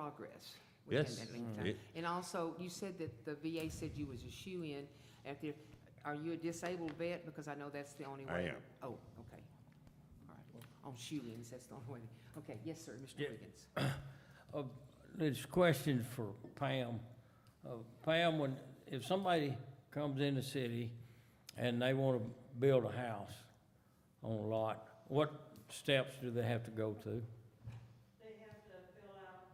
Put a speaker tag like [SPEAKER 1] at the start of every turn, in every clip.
[SPEAKER 1] progress within
[SPEAKER 2] Yes. Mm-hmm.
[SPEAKER 1] that meantime.
[SPEAKER 2] It-
[SPEAKER 1] And also, you said that the VA said you was a shoe-in. If there, are you a disabled vet? Because I know that's the only way.
[SPEAKER 2] I am.
[SPEAKER 1] Oh, okay. All right. On shoe-ins, that's the only way. Okay, yes, sir, Mr.
[SPEAKER 3] Yeah.
[SPEAKER 1] Wiggins.
[SPEAKER 3] Uh, This question for Pam. Uh, Pam, when, if somebody comes in the city and they want to build a house on a lot, what steps do they have to go to?
[SPEAKER 4] They have to fill out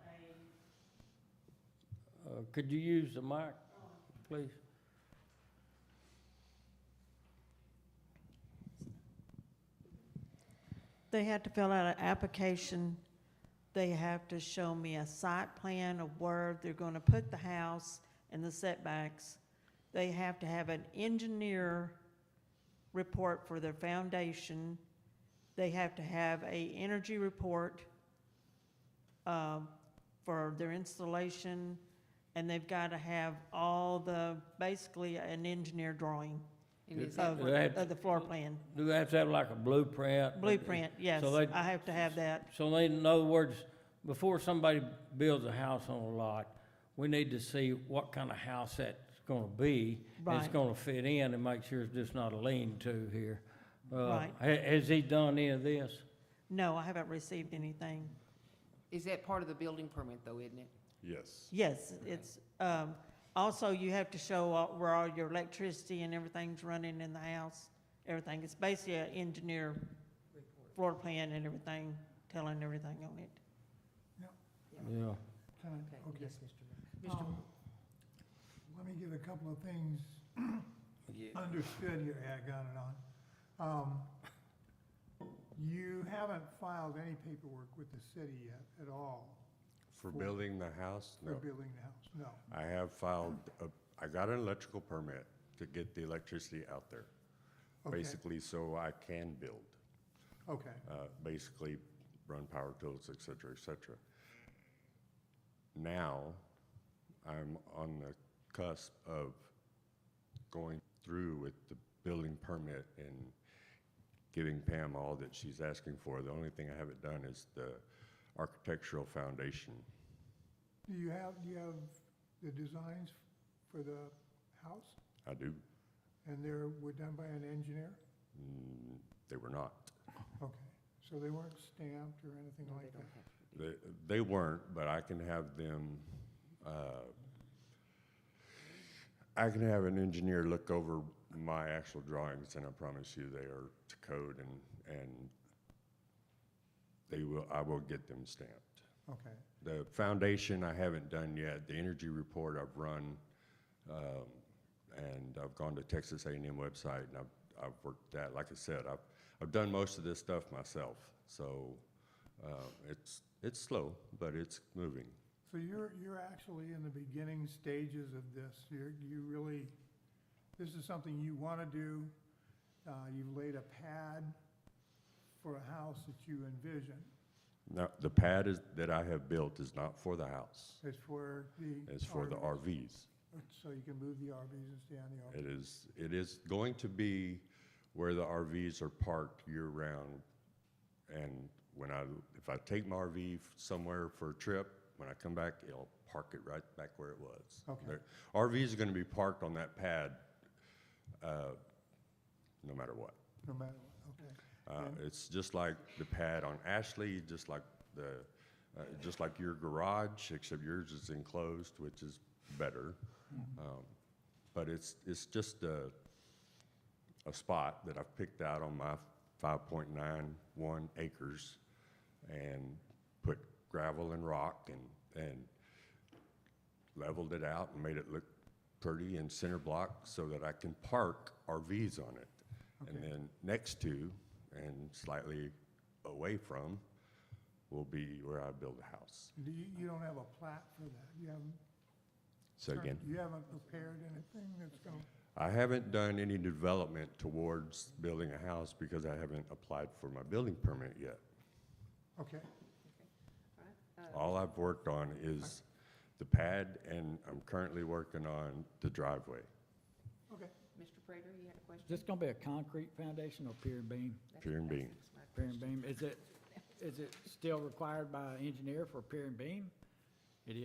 [SPEAKER 4] a,
[SPEAKER 3] Uh, Could you use the mic,
[SPEAKER 4] Oh.
[SPEAKER 3] please?
[SPEAKER 4] they had to fill out an application. They have to show me a site plan of where they're gonna put the house and the setbacks. They have to have an engineer report for their foundation. They have to have a energy report, uh, for their installation. And they've gotta have all the, basically an engineer drawing
[SPEAKER 1] And is that
[SPEAKER 4] of,
[SPEAKER 3] They had-
[SPEAKER 4] of the floor plan.
[SPEAKER 3] Do they have to have like a blueprint?
[SPEAKER 4] Blueprint, yes,
[SPEAKER 3] Uh, So they-
[SPEAKER 4] I have to have that.
[SPEAKER 3] So they, in other words, before somebody builds a house on a lot, we need to see what kind of house that's gonna be. and It's
[SPEAKER 4] Right.
[SPEAKER 3] gonna fit in and make sure it's just not a lean-to here. Uh,
[SPEAKER 4] Right.
[SPEAKER 3] ha- Has he done any of this?
[SPEAKER 4] No, I haven't received anything.
[SPEAKER 1] Is that part of the building permit though, isn't it?
[SPEAKER 2] Yes.
[SPEAKER 4] Yes, it's, um, also you have to show all- where all your electricity and everything's running in the house, everything. It's basically an engineer floor plan and everything, telling everything on it.
[SPEAKER 3] Yeah.
[SPEAKER 5] Time,
[SPEAKER 1] Okay,
[SPEAKER 5] okay.
[SPEAKER 1] yes, Mr. Wiggins. Oh, Mr.
[SPEAKER 5] Um, Let me get a couple of things understood here, yeah, I got it on. Um, You haven't filed any paperwork with the city yet at all
[SPEAKER 2] For building the house?
[SPEAKER 5] for
[SPEAKER 2] No.
[SPEAKER 5] building the house, no.
[SPEAKER 2] I have filed, a- I got an electrical permit to get the electricity out there,
[SPEAKER 5] Okay,
[SPEAKER 2] basically so I can build,
[SPEAKER 5] Okay,
[SPEAKER 2] uh, basically run power tools, et cetera, et cetera. Now, I'm on the cusp of going through with the building permit and giving Pam all that she's asking for. The only thing I haven't done is the architectural foundation.
[SPEAKER 5] do you have, do you have the designs for the house?
[SPEAKER 2] I do,
[SPEAKER 5] And they were done by an engineer?
[SPEAKER 2] mm, they were not.
[SPEAKER 5] Okay, so they weren't stamped or anything
[SPEAKER 1] No, they don't
[SPEAKER 5] like that?
[SPEAKER 1] have to.
[SPEAKER 2] They, they weren't, but I can have them, uh, I can have an engineer look over my actual drawings and I promise you they are to code and, and they will, I will get them stamped.
[SPEAKER 5] Okay,
[SPEAKER 2] The foundation I haven't done yet, the energy report I've run, um, and I've gone to Texas A&M website and I've, I've worked that, like I said, I've, I've done most of this stuff myself, so, uh, it's, it's slow, but it's moving.
[SPEAKER 5] so you're, you're actually in the beginning stages of this. You're, you really, this is something you want to do. Uh, You've laid a pad for a house that you envision.
[SPEAKER 2] Now, the pad is, that I have built is not for the house,
[SPEAKER 5] It's for the.
[SPEAKER 2] it's for the
[SPEAKER 5] RV.
[SPEAKER 2] RVs.
[SPEAKER 5] So you can move the RVs and stay on the RV.
[SPEAKER 2] It is, it is going to be where the RVs are parked year-round. And when I, if I take my RV f- somewhere for a trip, when I come back, it'll park it right back where it was.
[SPEAKER 5] Okay.
[SPEAKER 2] There- RVs are gonna be parked on that pad, uh, no matter what.
[SPEAKER 5] No matter what, okay.
[SPEAKER 2] Uh,
[SPEAKER 5] And-
[SPEAKER 2] It's just like the pad on Ashley, just like the, uh, just like your garage, except yours is enclosed, which is better. Um, But it's, it's just a, a spot that I've picked out on my 5.91 acres and put gravel and rock and, and leveled it out and made it look pretty and center block so that I can park RVs on it. And
[SPEAKER 5] Okay.
[SPEAKER 2] then next to and slightly away from will be where I build a house.
[SPEAKER 5] Do You, you don't have a plat for that. You haven't.
[SPEAKER 2] So
[SPEAKER 5] started-
[SPEAKER 2] again,
[SPEAKER 5] You haven't prepared anything that's going,
[SPEAKER 2] I haven't done any development towards building a house because I haven't applied for my building permit yet.
[SPEAKER 5] okay.
[SPEAKER 2] All I've worked on is the pad and I'm currently working on the driveway.
[SPEAKER 1] Mr. Prater, you had a question?
[SPEAKER 6] Is this gonna be a concrete foundation or pier and beam?
[SPEAKER 1] That's-
[SPEAKER 2] Pier and
[SPEAKER 1] that's-
[SPEAKER 2] beam.
[SPEAKER 1] that's my
[SPEAKER 6] Pier and
[SPEAKER 1] question.
[SPEAKER 6] beam, is it, is it still required by engineer for pier and beam?